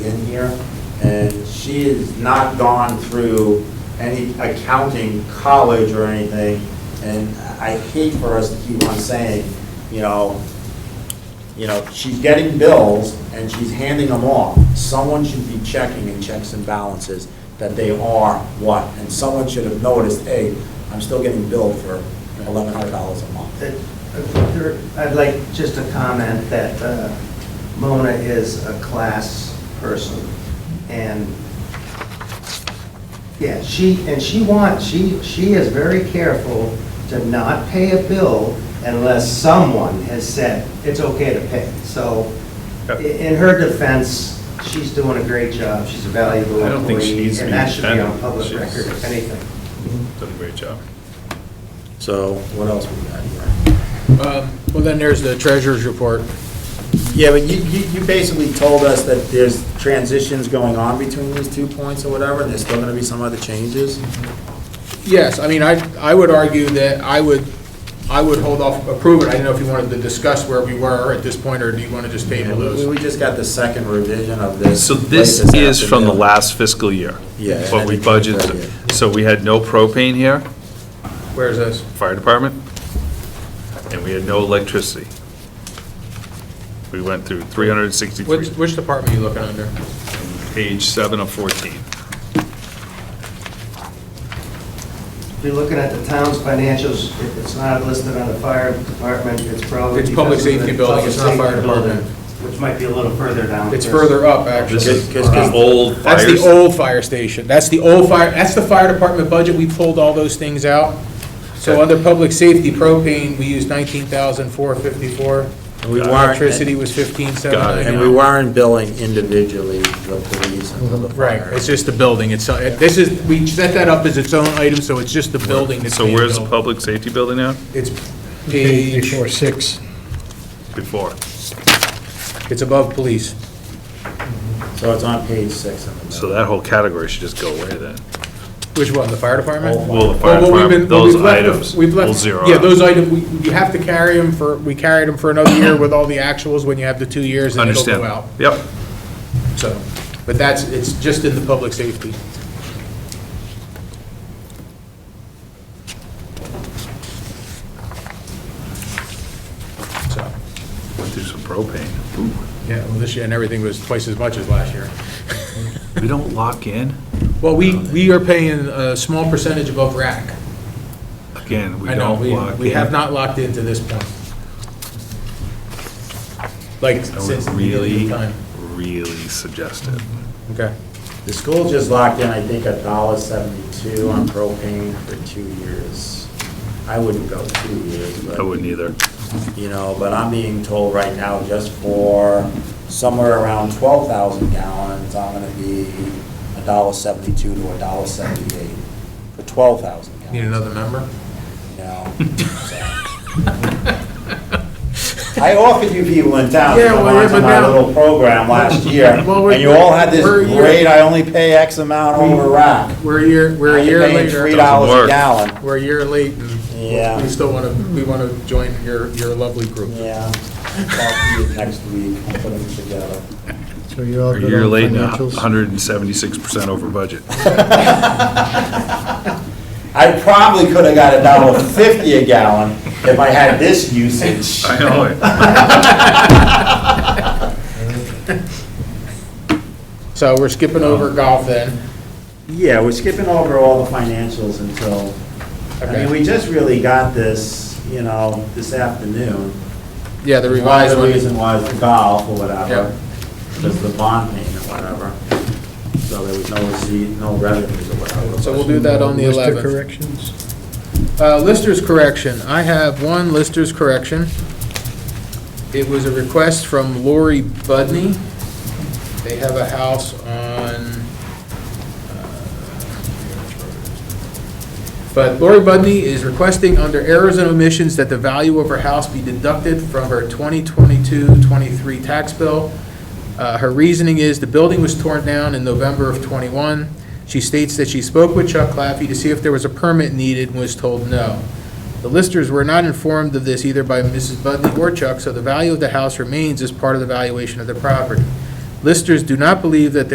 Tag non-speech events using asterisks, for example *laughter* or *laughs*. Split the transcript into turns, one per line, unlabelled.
in here, and she has not gone through any accounting college or anything, and I hate for us to keep on saying, you know, you know, she's getting bills and she's handing them off. Someone should be checking in checks and balances that they are what, and someone should have noticed, hey, I'm still getting billed for eleven hundred dollars a month.
that- there- I'd like just to comment that uh, Mona is a class person, and, yeah, she, and she wants, she, she is very careful to not pay a bill unless someone has said it's okay to pay. So, i- in her defense, she's doing a great job, she's a valuable
I don't think she
employee,
needs to
and
be
that should be on
defended.
public
She's-
record, if anything.
Done a great job.
So what else we got here?
Um, Well, then there's the treasurer's report.
Yeah, but you, you, you basically told us that there's transitions going on between these two points or whatever, and there's still gonna be some other changes?
Yes, I mean, I, I would argue that I would, I would hold off, approve it. I didn't know if you wanted to discuss where we were at this point, or do you want to just table
We,
those?
we just got the second revision of this.
So this
latest
is from the
afternoon.
last fiscal year.
Yeah, and
What we
then it came
budgeted.
right here.
So we had no propane here,
Where's this?
fire department, and we had no electricity. We went through
Which,
363,
which department are you looking under?
page 7 of 14.
If you're looking at the town's financials, if it's not listed on the fire department, it's probably.
It's public
because of the
safety building, it's not
public
fire
safety building,
department.
Which might be a little further down.
It's further up,
This
actually. Uh,
is
Cause- cause-
the old
That's
fire
the old fire station. That's the old fire, that's the fire department budget. We pulled all those things out. So under public safety propane, we used nineteen thousand four fifty-four.
And we weren't-
Electricity was fifteen seven
Got it.
And
ninety-nine.
we weren't billing individually the police and the
Right,
fire.
it's just the building, it's, uh, this is, we set that up as its own item, so it's just the building that's
So
being
where's the
built.
public safety building now?
It's page,
Four, six.
Before.
it's above police.
So it's on page six of the
So
middle.
that whole category should just go away then.
Which one, the fire department?
All
Well, the
Well,
Oh, fire
what we've
department,
been- what we've
those
left of-
items
We've left.
will zero
Yeah,
out.
those items, you have to carry them for, we carried them for another year with all the actuals when you have the two years, and it'll
Understand.
go out,
Yep.
so. But that's, it's just in the public safety. So.
Went through some propane. Ooh.
Yeah, well, this year, and everything was twice as much as last year.
We don't lock in.
Well, we, we are paying a small percentage above rack.
Again, we
I know,
don't
we,
lock in.
we have not locked into this point. Like,
I would
since the
really,
beginning of time.
really suggest it.
Okay.
The school just locked in, I think, a dollar seventy-two on propane for two years. I wouldn't go two years, but.
I wouldn't either.
you know, but I'm being told right now, just for somewhere around twelve thousand gallons, I'm gonna be a dollar seventy-two to a dollar seventy-eight for twelve thousand gallons.
Need another member?
You know, so. I offered you people in town to
Yeah,
come
well, yeah,
on to
but
my
now-
little program
*laughs*
last year,
Well, we're-
and you all had this
we're a year-
great, I only pay X amount over rack.
We're a year, we're a year
I'm paying three
Doesn't
later.
dollars a
work.
gallon,
We're a year late, and
yeah,
we still want to, we want to join your, your lovely group.
yeah. Talk to you next week, I'll put them together.
So you're all
A
good
year
on
late, and
financials?
176% over
*laughs*
budget.
*laughs* I probably could have got a dollar fifty a gallon if I had this usage.
I know it.
So we're skipping over golf then.
Yeah, we're skipping over all the financials until, I mean,
Okay.
we just really got this, you know, this afternoon.
Yeah, the
One of
revised
The
one.
reason was the golf or
Yep.
whatever, because the bond payment, whatever. So there was no receipt, no revenues or whatever.
So we'll do that on the
List of
11th.
corrections?
Uh, Lister's correction, I have one Lister's correction. It was a request from Lori Budney. They have a house on, uh, but Lori Budney is requesting under errors and omissions that the value of her house be deducted from her 2022-23 tax bill. Uh, Her reasoning is the building was torn down in November of '21. She states that she spoke with Chuck Claffey to see if there was a permit needed and was told no. The listers were not informed of this either by Mrs. Budney or Chuck, so the value of the house remains as part of the valuation of the property. Listers do not believe that their